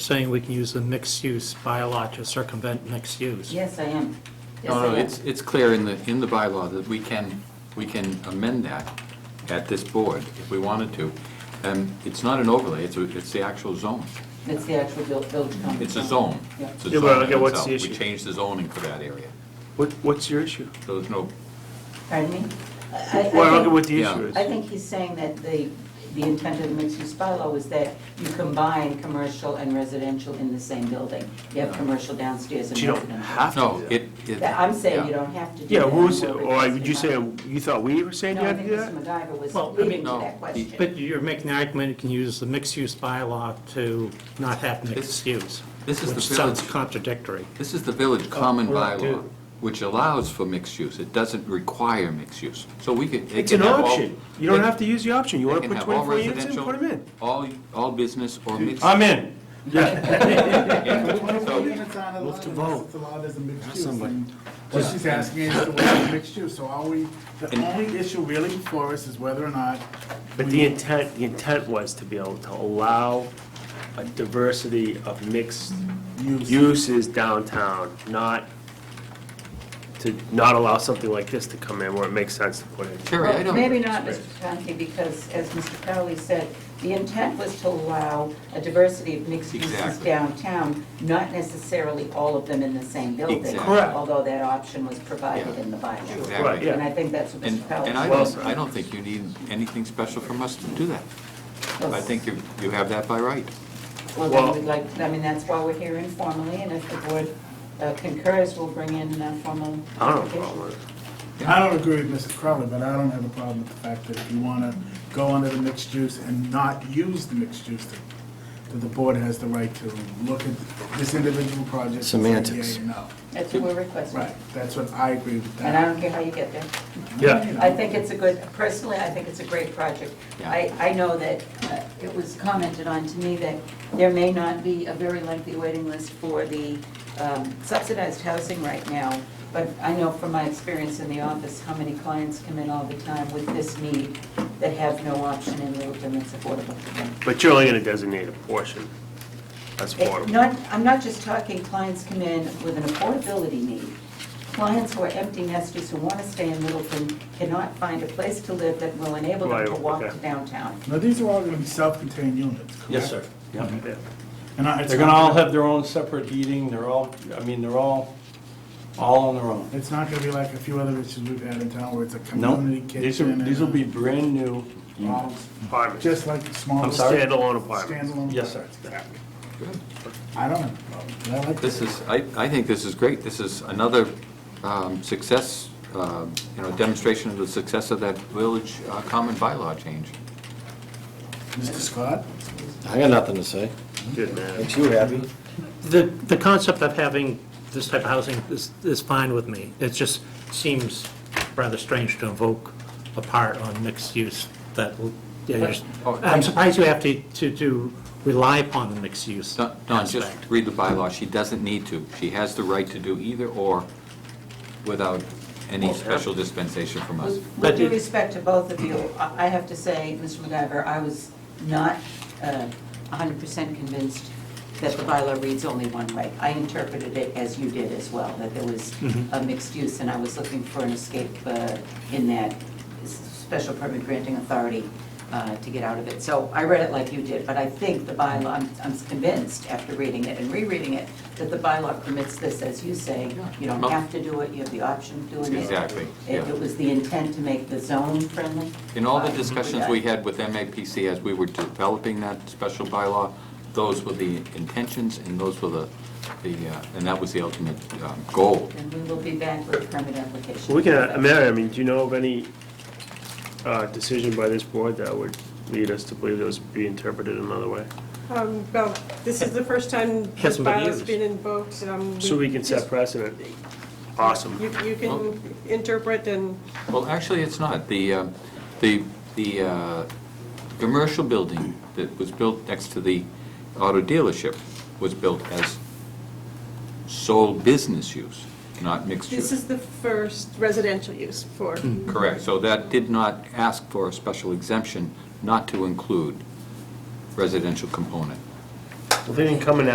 saying we can use the mixed-use bylaw to circumvent mixed use. Yes, I am. Yes, No, I no, am. it's, it's clear in the, in the bylaw that we can, we can amend that at this board if we wanted to. And it's not an overlay, it's, a- it's the actual zone. It's the actual vil- village common. It's a zone. Yeah. It's a Yeah, but, zone in yeah, what's itself. the issue? We changed the zoning for that area. What, what's your issue? So there's no, Pardon me? I- I- I Well, I don't think- get what the Yeah. issue is. I think he's saying that the, the intent of the mixed-use bylaw was that you combine commercial and residential in the same building. You have commercial downstairs and But you don't residential. have to do no, that. it, it. That- I'm saying yeah. you don't have to do that. Yeah, who's, anymore or because would you you're say, not- you thought we were saying you No, I had to think do that? Mr. MacGyver was Well, I leading to mean- that No, question. But you're making the argument you can use the mixed-use bylaw to not have mixed use. this is the Which sounds village. contradictory. This is the village Oh, common we're not bylaw, doing- which allows for mixed use. It doesn't require mixed use. So we could. it It's can an have all- option. You don't it- have to use the option. You it want to can put have all 24 units in, put residential, them in. All, all business or mixed. I'm in. Yeah. So- Twenty-four units on a lot, it's allowed as a mixed use. and What she's asking is to allow mixed use, so all we, the And- only issue really before us is whether or not. But the intent, the intent was to be able to allow a diversity of mixed Use. uses downtown, not to not allow something like this to come in where it makes sense to put in. Sherry, I Well, don't. Maybe not, Mr. Conti, because as Mr. Crowley said, the intent was to allow a diversity of mixed uses Exactly. downtown, not necessarily all of them in the same building. Exactly. Correct. Although that option was provided in the bylaw. Exactly. Right, yeah. And I think that's what And, Mr. Crowley. and I Well don't, said. I don't think you need anything special from us to do that. was- I think you, you have that by right. Well, Well- then we'd like, I mean, that's why we're here informally, and if the board uh, concurs, we'll bring in a formal. I don't have a application. problem with it. I don't agree with Mrs. Crowley, but I don't have a problem with the fact that if you wanna go under the mixed use and not use the mixed use, that, that the board has the right to look at this individual project. and say yea Semantics. or No, That's what we're requesting. right, that's what I agree with And I that. don't care how you get there. Yeah. I think it's a good, personally, I think it's a great project. I, I know that uh, it was commented on to me that there may not be a very lengthy waiting list for the um, subsidized housing right now, but I know from my experience in the office, how many clients come in all the time with this need that have no option in lieu of them that's affordable to them. But you're only gonna designate a portion. That's It- affordable. Not, I'm not just talking clients come in with an affordability need. Clients who are empty nesters who want to stay in Littleton cannot find a place to live that will enable them to Right, walk okay. to downtown. Now, these are all gonna be self-contained units, correct? Yes, sir. Yeah. Yeah. And I- it's They're gonna all not- have their own separate heating, they're all, I mean, they're all, all on their own. It's not gonna be like a few other issues we've had in town where it's a No, community kitchen. these are, and these will a- be brand new units. Mm. Apartments. Just like the small. I'm sorry? Standalone apartments. Standalone. Yes, sir. Exactly. I don't have a problem. I like This is, I, I think this is great. This is another um, success, um, you know, demonstration of the success of that village uh, common bylaw change. Mr. Scott? I got nothing to say. Good man. Makes you happy. The, the concept of having this type of housing is, is fine with me. It just seems rather strange to invoke a part on mixed use that, will- yeah, there's- oh, I'm surprised you have to, to, to rely upon the mixed use No, no, just aspect. read the bylaw. She doesn't need to. She has the right to do either or without any special dispensation from us. With- But With due it- respect to both of you, I I have to say, Mr. MacGyver, I was not uh, 100% convinced that the bylaw reads only one way. I interpreted it as you did as well, that there was Mm-hmm. a mixed use, and I was looking for an escape uh, in that s- special permit granting authority uh, to get out of it. So I read it like you did, but I think the bylaw, I'm- I'm convinced after reading it and rereading it, that the bylaw permits this, as you say, you don't have to do it, you have the option of doing it. Exactly, It- yeah. It was the intent to make the zone friendly. In all the Uh, discussions we had with MAPC as we were developing that special bylaw, those were the intentions and those were the, the, uh, and that was the ultimate um, goal. And we will be back with a permit application. We can, uh, Mary, I mean, do you know of any uh, decision by this board that would lead us to believe those be interpreted another way? Um, Well, this is the first time this Hasn't been bylaw's used. been invoked. um, So we can set precedent. Awesome. You you can interpret and, Well, actually, it's not. The, uh, the, the uh, commercial building that was built next to the auto dealership was built as sole business use, not mixed this use. is the first residential use for, Hmm, Correct. So that did not ask for a special exemption not to include residential component. Well, they didn't come in